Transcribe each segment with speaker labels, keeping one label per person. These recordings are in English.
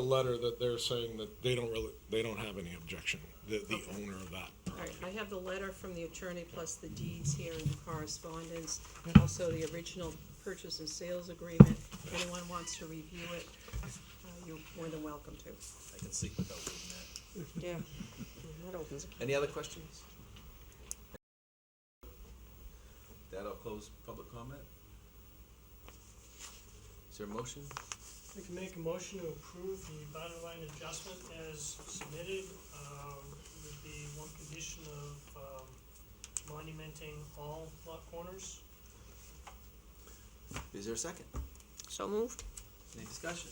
Speaker 1: a letter that they're saying that they don't really, they don't have any objection, the, the owner of that
Speaker 2: All right,
Speaker 1: property.
Speaker 2: I have the letter from the attorney plus the deeds here and the correspondence, also the original purchase and sales agreement. If anyone wants to review it, uh, you're more than welcome to.
Speaker 3: I can sleep without reading that.
Speaker 2: Yeah, Mm-hmm, that opens.
Speaker 3: Any other questions? That'll close public comment. Is there a motion?
Speaker 4: I can make a motion to approve the bottom line adjustment as submitted, um, with the one condition of, um, monumenting all lot corners.
Speaker 3: Is there a second?
Speaker 2: So moved?
Speaker 3: Any discussion?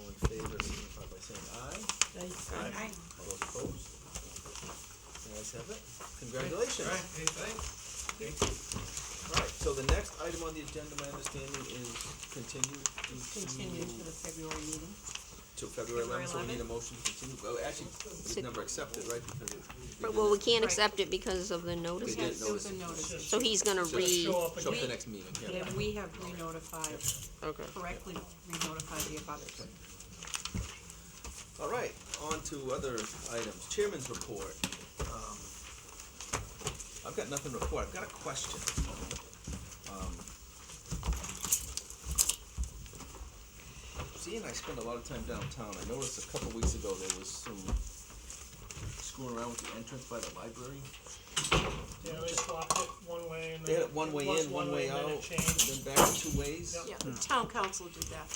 Speaker 3: All in favor, signify by saying aye.
Speaker 2: Aye.
Speaker 3: All those opposed? The ayes have it. Congratulations. All right, so the next item on the agenda, my understanding, is continued to.
Speaker 2: Continue to the February meeting.
Speaker 3: To February
Speaker 2: February
Speaker 3: eleventh, so we need a
Speaker 2: 11th.
Speaker 3: motion to continue, well, actually, it's
Speaker 5: Sit-
Speaker 3: never accepted, right, because it.
Speaker 5: But, well, we can't
Speaker 2: Right.
Speaker 5: accept it because of the notice,
Speaker 3: did
Speaker 2: Yes, there was a
Speaker 3: notice
Speaker 2: notice.
Speaker 5: so he's gonna
Speaker 3: So-
Speaker 5: re,
Speaker 4: Show up
Speaker 3: Show up the
Speaker 4: again.
Speaker 3: next meeting, yeah.
Speaker 2: And we have re-notified,
Speaker 5: okay.
Speaker 2: correctly re-notified the abutters.
Speaker 3: All right, on to other items, chairman's report. Um, I've got nothing to report, I've got a question. Um, Seeing I spend a lot of time downtown, I noticed a couple weeks ago there was some screwing around with the entrance by the library.
Speaker 4: Yeah, they swapped it one way and
Speaker 3: They had
Speaker 4: then.
Speaker 3: it one way
Speaker 4: was
Speaker 3: in, one way out,
Speaker 4: and Then it changed.
Speaker 3: then back two ways.
Speaker 4: Yep.
Speaker 2: Yeah, the town council did that.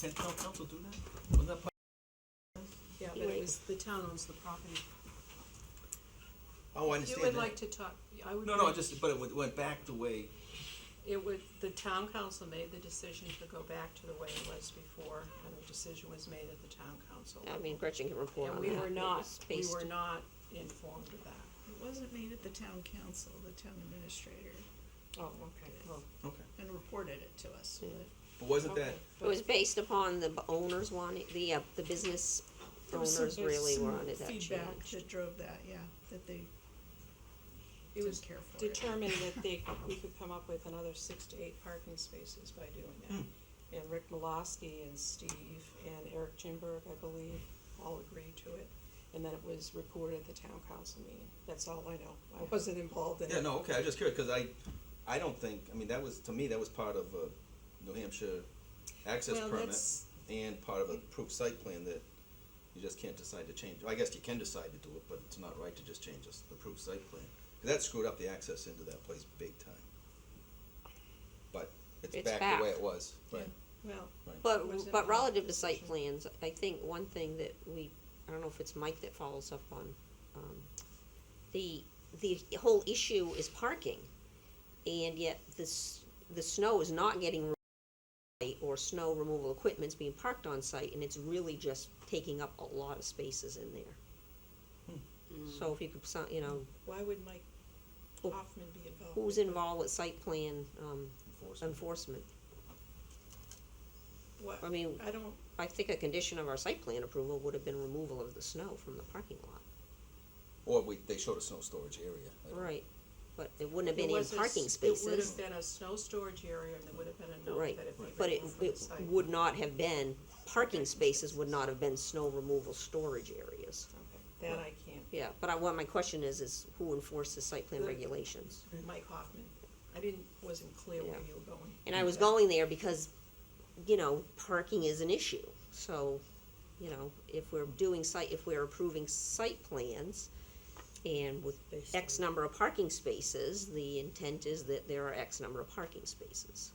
Speaker 3: Can town council do that? Wasn't that part-
Speaker 2: Yeah, but it was, the town owns the property.
Speaker 3: Oh, I
Speaker 2: You
Speaker 3: understand
Speaker 2: would
Speaker 3: that.
Speaker 2: like to talk, I would.
Speaker 3: No, no,
Speaker 2: like-
Speaker 3: just, but it went- went back the way,
Speaker 2: It would, the town council made the decision to go back to the way it was before, and the decision was made at the town council.
Speaker 5: I mean, Gretchen can report
Speaker 2: And
Speaker 5: on
Speaker 2: we
Speaker 5: that.
Speaker 2: were
Speaker 5: It
Speaker 2: not,
Speaker 5: was
Speaker 2: we
Speaker 5: based-
Speaker 2: were not informed of that.
Speaker 6: It wasn't made at the town council, the town administrator,
Speaker 2: Oh, okay, well,
Speaker 3: okay.
Speaker 6: and reported it to us, but
Speaker 3: But wasn't that,
Speaker 2: okay.
Speaker 5: It was based upon the b- owners wanting, the, uh, the business
Speaker 6: there was some,
Speaker 5: owners really
Speaker 6: some
Speaker 5: wanted that
Speaker 6: feedback
Speaker 5: changed.
Speaker 6: that drove that, yeah, that they
Speaker 2: It
Speaker 6: didn't
Speaker 2: was
Speaker 6: care for it.
Speaker 2: determined that they, we could come up with another six to eight parking spaces by doing that. And Rick Malosky and Steve and Eric Jimberg, I believe, all agreed to it. And then it was reported at the town council meeting. That's all I know. I wasn't involved in it.
Speaker 3: yeah, no, okay, I was just curious, cause I, I don't think, I mean, that was, to me, that was part of a New Hampshire access
Speaker 2: Well,
Speaker 3: permit
Speaker 2: that's-
Speaker 3: and part of a approved site plan that you just can't decide to change. I guess you can decide to do it, but it's not right to just change this- the approved site plan. 'Cause That screwed up the access into that place big time. But it's
Speaker 5: It's
Speaker 3: back the way
Speaker 5: back.
Speaker 3: it was, right?
Speaker 2: Well, Was
Speaker 5: But,
Speaker 2: it
Speaker 5: but
Speaker 2: on
Speaker 5: relative to
Speaker 2: the
Speaker 5: site
Speaker 2: decision?
Speaker 5: plans, I think one thing that we, I don't know if it's Mike that follows up on, um, the, the whole issue is parking. And yet this, the snow is not getting removed or snow removal equipment's being parked on site and it's really just taking up a lot of spaces in there. So if you could, so- you know,
Speaker 2: why would Mike
Speaker 5: Oh.
Speaker 2: Hoffman be involved?
Speaker 5: who's involved with site plan, um,
Speaker 3: Enforcement.
Speaker 5: enforcement?
Speaker 2: What,
Speaker 5: I mean,
Speaker 2: I don't,
Speaker 5: I think a condition of our site plan approval would have been removal of the snow from the parking lot.
Speaker 3: Or we, they showed a snow storage area. I don't-
Speaker 5: Right, but it wouldn't have
Speaker 2: It
Speaker 5: been in
Speaker 2: was a s-
Speaker 5: parking
Speaker 2: It would have
Speaker 5: spaces.
Speaker 2: been a snow storage area, and there would have been a note
Speaker 5: Right,
Speaker 2: that it would
Speaker 5: but it,
Speaker 2: removed from the
Speaker 5: it
Speaker 2: site.
Speaker 5: would not have been, parking spaces would not have been snow removal storage areas.
Speaker 2: Okay, That I can't,
Speaker 5: Yeah, but I, what my question is, is who enforces site plan
Speaker 2: Right.
Speaker 5: regulations?
Speaker 2: Mike Hoffman, I didn't, wasn't clear where
Speaker 5: Yeah.
Speaker 2: you were going. uh,
Speaker 5: And I was
Speaker 2: Yeah.
Speaker 5: going there because, you know, parking is an issue, so, you know, if we're doing site, if we're approving site plans and with X number of parking spaces, the intent is that there are X number of parking spaces.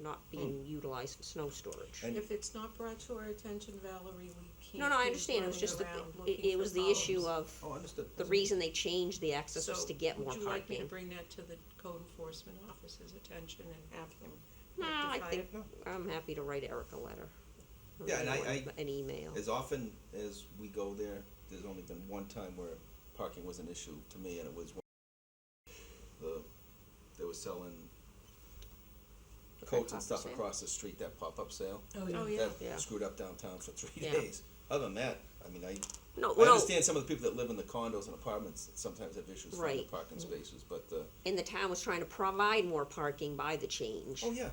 Speaker 5: Not
Speaker 2: Hmm.
Speaker 5: being utilized for snow storage.
Speaker 3: And-
Speaker 2: If it's not brought to our attention, Valerie, we can't.
Speaker 5: No, no, I
Speaker 2: keep
Speaker 5: understand, it was
Speaker 2: running
Speaker 5: just, the-
Speaker 2: around
Speaker 5: it,
Speaker 2: looking
Speaker 5: it
Speaker 2: for
Speaker 5: was the issue
Speaker 2: problems.
Speaker 5: of,
Speaker 3: Oh, understood.
Speaker 5: the reason they changed the access was to get more
Speaker 2: So, would you like me to
Speaker 5: parking.
Speaker 2: bring that to the code enforcement officer's attention and have him
Speaker 5: No, I
Speaker 2: rectify
Speaker 5: think,
Speaker 2: it?
Speaker 5: I'm happy to write Eric a letter. or
Speaker 3: Yeah, and I-
Speaker 5: anyone,
Speaker 3: I-
Speaker 5: An email.
Speaker 3: As often as we go there, there's only been one time where parking was an issue to me, and it was when the, they were selling coats and
Speaker 5: pop-up
Speaker 3: stuff
Speaker 5: sale?
Speaker 3: across the street, that pop-up sale.
Speaker 2: Oh, yeah,
Speaker 5: Yeah.
Speaker 3: That screwed up downtown for three
Speaker 5: Yeah.
Speaker 3: days. Other than that, I mean, I,
Speaker 5: No,
Speaker 3: I
Speaker 5: no,
Speaker 3: understand some of the people that live in the condos and apartments that sometimes have issues finding
Speaker 5: Right.
Speaker 3: parking spaces, but, uh,
Speaker 5: and the town was trying to provide more parking by the change.
Speaker 3: oh, yeah,